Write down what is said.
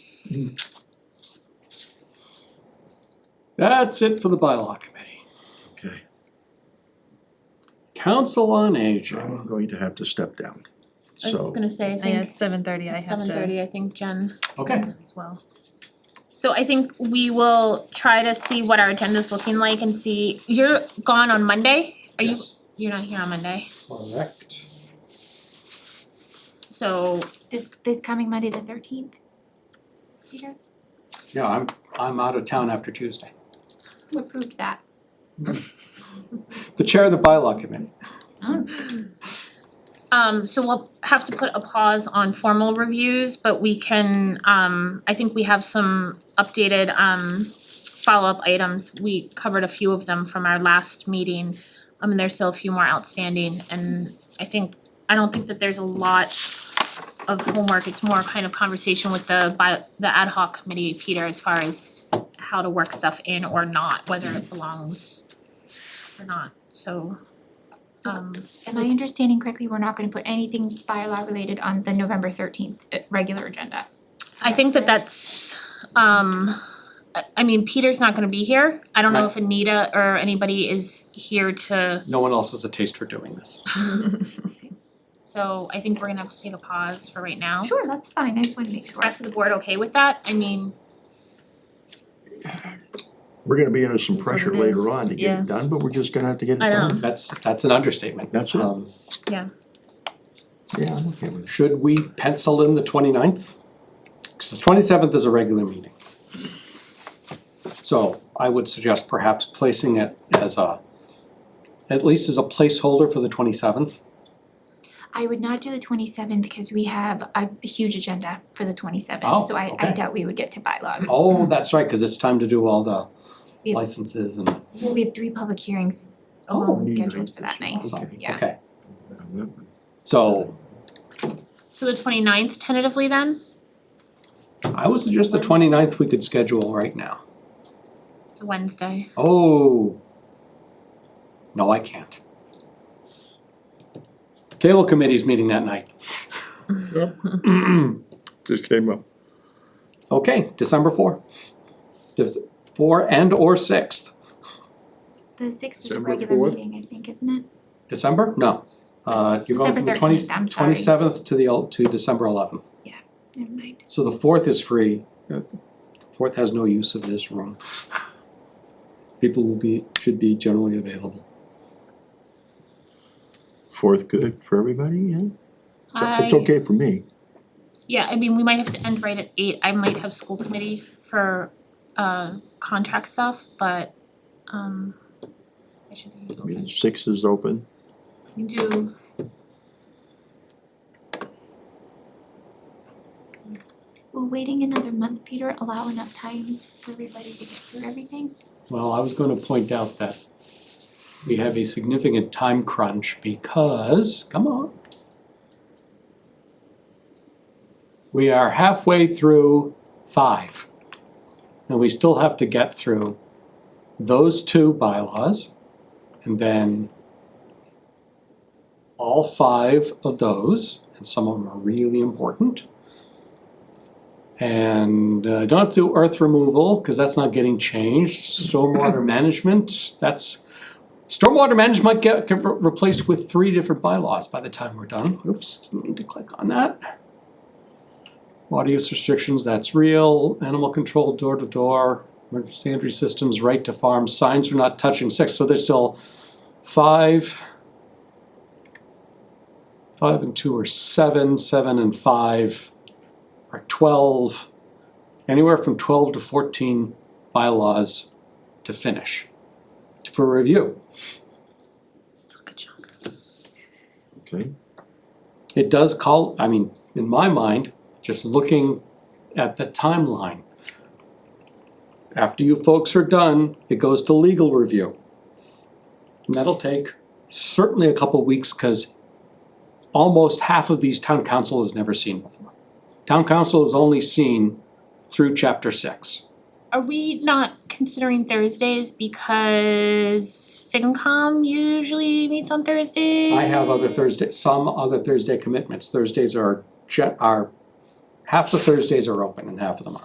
That's it for the bylaw committee. Okay, Council on Aging. I'm going to have to step down. I was So, gonna say, I Yeah, think it's seven thirty, I have seven to thirty, I think Jen Okay, as well. So I think we will try to see what our agenda's looking like and see, you're gone on Monday? Are you, yes, you're not here on Monday, correct. so This this coming Monday the thirteenth. Peter, Yeah, I'm, I'm out of town after Tuesday. who approved that? The chair of the bylaw committee. Um so we'll have to put a pause on formal reviews, but we can um I think we have some updated um follow-up items. We covered a few of them from our last meeting. I mean, there's still a few more outstanding and I think I don't think that there's a lot of homework. It's more kind of conversation with the by the ad hoc committee, Peter, as far as how to work stuff in or not, whether it belongs or not. So So um am I understanding correctly, we're not gonna put anything bylaw related on the November thirteenth uh, regular agenda? I think that that's, um, I, I mean, Peter's not gonna be here. I don't know Right. if Anita or anybody is here to, No one else has a taste for doing this. so I think we're gonna have to take a pause for right now. Sure, that's fine, I just wanna make sure. Rest of the board okay with that? I mean, we're gonna be under some That's what pressure it is, later on to get yeah. it done, but we're just gonna have to get it I done. know. That's, that's an understatement. That's it. Um, Yeah, I'm okay with it. Should we pencil in the 29th? Because the twenty-seventh is a regular meeting. So I would suggest perhaps placing it as a, at least as a placeholder for the twenty-seventh. I would not do the twenty seventh because we have a huge agenda for the twenty Oh, seventh, so I I okay. doubt we would get to bylaws. Oh, that's right, because it's time to do all the Yeah. licenses and, We have three public hearings Oh, alone neither. scheduled for that night. awesome, yeah. okay. On that one. So so the 29th tentatively then? I would suggest the 29th we could schedule right now. It's a Wednesday. Oh. No, I can't. Cable committee's meeting that night. just came up. Okay, December four. Dec- Four and or sixth, The sixth is a December regular fourth? meeting, I think, isn't it? December? No. Uh, you're going from the December twenty, 13th, I'm sorry. twenty-seventh to the, el- to December eleventh. Never mind. So the fourth is free. Uh, Fourth has no use of this room. People will be, should be generally available. Fourth good for everybody, yeah? It's I, okay for me. yeah, I mean, we might have to end right at eight. I might have school committee for, uh, contract stuff, but, um, I should be I mean, open. six is open. You do. Will waiting another month, Peter, allow enough time for everybody to get through everything? Well, I was gonna point out that we have a significant time crunch because, come on. We are halfway through five. And we still have to get through those two bylaws and then all five of those, and some of them are really important. And uh, don't have to do earth removal, because that's not getting changed. Stormwater management, that's, stormwater management might get get re- replaced with three different bylaws by the time we're done. Oops, didn't need to click on that. Water use restrictions, that's real. Animal control, door to door, emergency entry systems, right to farm, signs are not touching six, so there's still five. Five and two are seven, seven and five are twelve, anywhere from twelve to fourteen bylaws to finish for review. Still a good job. Okay, It does call, I mean, in my mind, just looking at the timeline. After you folks are done, it goes to legal review. And that'll take certainly a couple weeks, cause almost half of these town council has never seen before. Town council has only seen through chapter six. Are we not considering Thursdays because FinCom usually meets on Thursdays? I have other Thursday, some other Thursday commitments, Thursdays are, gen- are, half the Thursdays are open and half of them aren't.